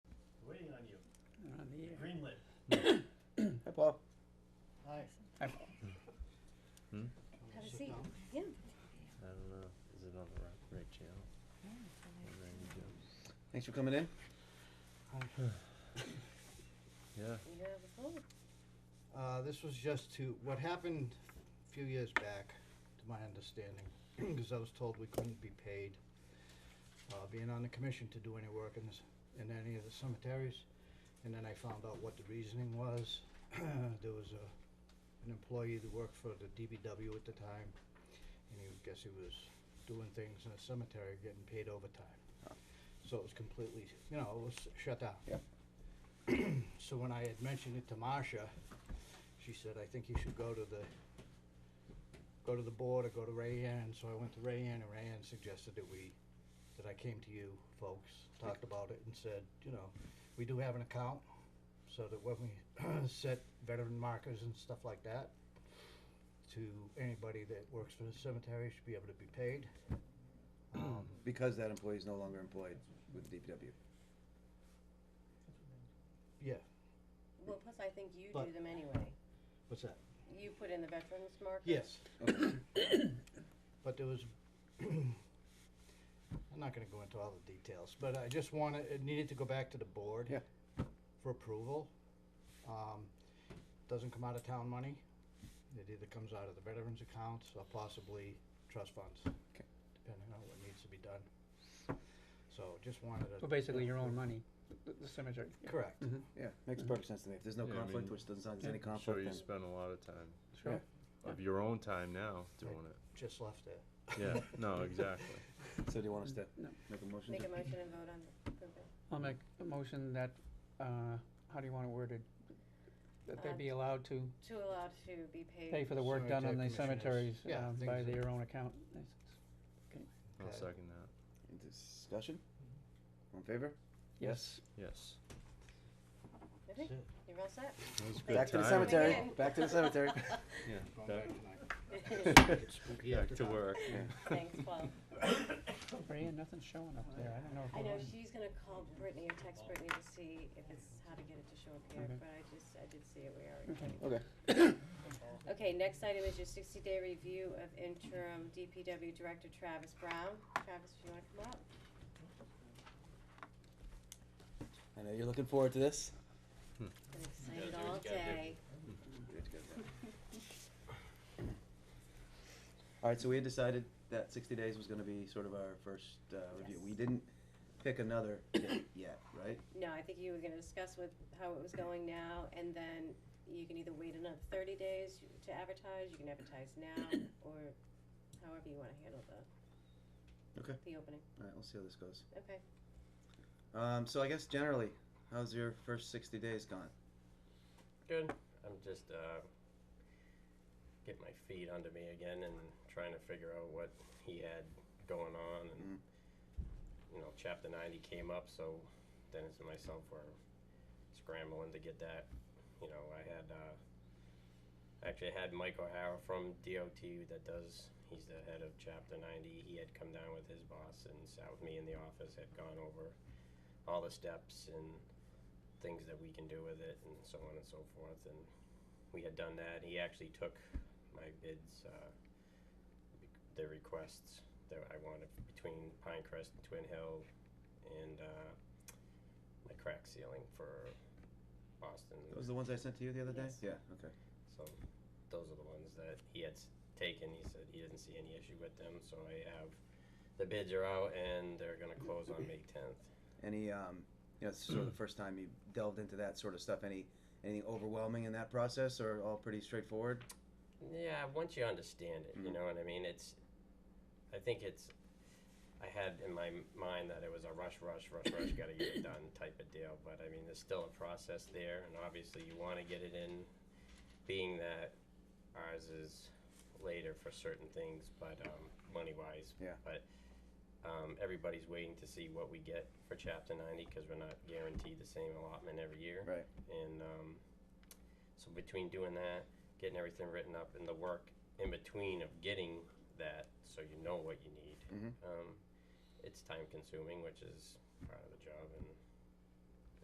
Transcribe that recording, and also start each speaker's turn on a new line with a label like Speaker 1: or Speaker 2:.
Speaker 1: They're on the air.
Speaker 2: Greenlit.
Speaker 1: Hi, Paul.
Speaker 2: Hi.
Speaker 1: Hi, Paul.
Speaker 3: Have a
Speaker 2: Sit
Speaker 3: seat.
Speaker 2: down.
Speaker 3: Yeah.
Speaker 4: I don't know. Is it on the right, right channel? Whatever I need to-
Speaker 1: Thanks for coming in.
Speaker 4: Yeah.
Speaker 3: You have a phone.
Speaker 2: Uh, this was just to, what happened a few years back, to my understanding, because I was told we couldn't be paid, uh, being on the commission to do any work in this, in any of the cemeteries. And then I found out what the reasoning was. There was a, an employee that worked for the DBW at the time, and he, guess he was doing things in the cemetery, getting paid overtime. So it was completely, you know, it was shut down.
Speaker 1: Yep.
Speaker 2: So when I had mentioned it to Marcia, she said, I think you should go to the, go to the board or go to Ray Ann. So I went to Ray Ann and Ray Ann suggested that we, that I came to you folks, talked about it and said, you know, we do have an account so that when we set veteran markers and stuff like that to anybody that works for the cemetery should be able to be paid. Um,
Speaker 1: Because that employee is no longer employed with DPW.
Speaker 2: yeah,
Speaker 3: Well, plus I think you
Speaker 2: But-
Speaker 3: do them anyway.
Speaker 2: what's that?
Speaker 3: You put in the veterans marker.
Speaker 2: Yes.
Speaker 1: Okay.
Speaker 2: But there was, I'm not gonna go into all the details, but I just wanna, it needed to go back to the board.
Speaker 1: Yeah.
Speaker 2: For approval. Um, doesn't come out of town money. It either comes out of the veterans accounts or possibly trust funds.
Speaker 1: Okay.
Speaker 2: Depending on what needs to be done. So just wanted to.
Speaker 5: So basically, your own money, the- the cemetery.
Speaker 2: Correct.
Speaker 1: Mhm. Yeah, makes perfect sense to me. If there's no
Speaker 4: Yeah, I
Speaker 1: conflict,
Speaker 4: mean,
Speaker 1: which doesn't sound like there's any
Speaker 4: I'm sure
Speaker 1: conflict,
Speaker 4: you
Speaker 1: then
Speaker 4: spend a lot of time
Speaker 5: Sure.
Speaker 4: of your own time now doing it.
Speaker 2: Just left it.
Speaker 4: Yeah. No, exactly.
Speaker 1: so do you want us to
Speaker 5: No.
Speaker 1: make a motion?
Speaker 3: Make
Speaker 1: to-
Speaker 3: a motion and vote on the approval.
Speaker 5: I'll make a motion that, uh, how do you want it worded? That they
Speaker 3: Uh,
Speaker 5: be allowed to
Speaker 3: To allow to be paid.
Speaker 5: pay for the work done on the
Speaker 2: Cemetery
Speaker 5: cemeteries,
Speaker 2: commissioners. Yeah,
Speaker 5: um,
Speaker 2: things
Speaker 5: by
Speaker 2: that-
Speaker 5: their own account.
Speaker 4: I'll
Speaker 2: Okay.
Speaker 4: second that.
Speaker 1: Any discussion? All in favor?
Speaker 5: Yes.
Speaker 4: Yes.
Speaker 3: Okay,
Speaker 2: That's it.
Speaker 3: You're all set?
Speaker 4: That was a good
Speaker 1: Back to the
Speaker 4: timing.
Speaker 1: cemetery.
Speaker 3: Again.
Speaker 1: Back to the cemetery.
Speaker 4: Yeah.
Speaker 2: Going back
Speaker 4: Back,
Speaker 2: tonight. It's spooky
Speaker 4: back
Speaker 2: after
Speaker 4: to
Speaker 2: dark.
Speaker 4: work.
Speaker 1: Yeah.
Speaker 3: Thanks, Paul.
Speaker 5: Brian, nothing's showing up there. I don't know if.
Speaker 3: I
Speaker 5: it
Speaker 3: know
Speaker 5: was-
Speaker 3: she's gonna call Brittany or text Brittany to see if it's how to get it to show up here,
Speaker 5: Okay.
Speaker 3: but I just, I did see it, we already.
Speaker 5: Okay.
Speaker 3: did.
Speaker 1: Okay.
Speaker 3: Okay, next item is your sixty day review of interim DPW Director Travis Brown. Travis, if you wanna come up?
Speaker 1: I know you're looking forward to this.
Speaker 3: Been excited all day.
Speaker 1: Good, good, good. All right, so we had decided that sixty days was gonna be sort of our first, uh, review.
Speaker 3: Yes.
Speaker 1: We didn't pick another date yet, right?
Speaker 3: No, I think you were gonna discuss with how it was going now, and then you can either wait another thirty days to advertise, you can advertise now, or however you wanna handle the,
Speaker 1: Okay.
Speaker 3: the opening,
Speaker 1: All right, we'll see how this goes.
Speaker 3: okay?
Speaker 1: Um, so I guess generally, how's your first sixty days gone?
Speaker 6: Good. I'm just uh, get my feet under me again and trying to figure out what he had going on, and
Speaker 4: Mm.
Speaker 6: you know, Chapter 90 came up, so Dennis and myself were scrambling to get that. You know, I had uh, actually had Mike O'Hara from DOT that does. He's the head of Chapter 90. He had come down with his boss and sat with me in the office. Had gone over all the steps and things that we can do with it and so on and so forth. And we had done that. He actually took my bids, uh, the requests that I wanted between Pinecrest and Twin Hill and uh, my crack ceiling for Boston.
Speaker 1: Those are the ones I sent to you the other day?
Speaker 3: Yes.
Speaker 1: Yeah, okay.
Speaker 6: So those are the ones that he had s- taken. He said he didn't see any issue with them. So I have the bids are out and they're going to close on May 10th.
Speaker 1: Any, um, you know, it's sort of the first time you delved into that sort of stuff. Any, anything overwhelming in that process or all pretty straightforward?
Speaker 6: Yeah, once you understand it, you
Speaker 1: Mhm.
Speaker 6: know what I mean. It's, I think it's, I had in my m- mind that it was a rush, rush, rush, rush, got to get it done type of deal. But I mean, there's still a process there, and obviously you want to get it in, being that ours is later for certain things, but um, money wise.
Speaker 1: Yeah.
Speaker 6: But um, everybody's waiting to see what we get for Chapter 90 because we're not guaranteed the same allotment every year.
Speaker 1: Right.
Speaker 6: And um, so between doing that, getting everything written up, and the work in between of getting that, so you know what you need,
Speaker 1: Mhm.
Speaker 6: um, it's time consuming, which is part of the job. And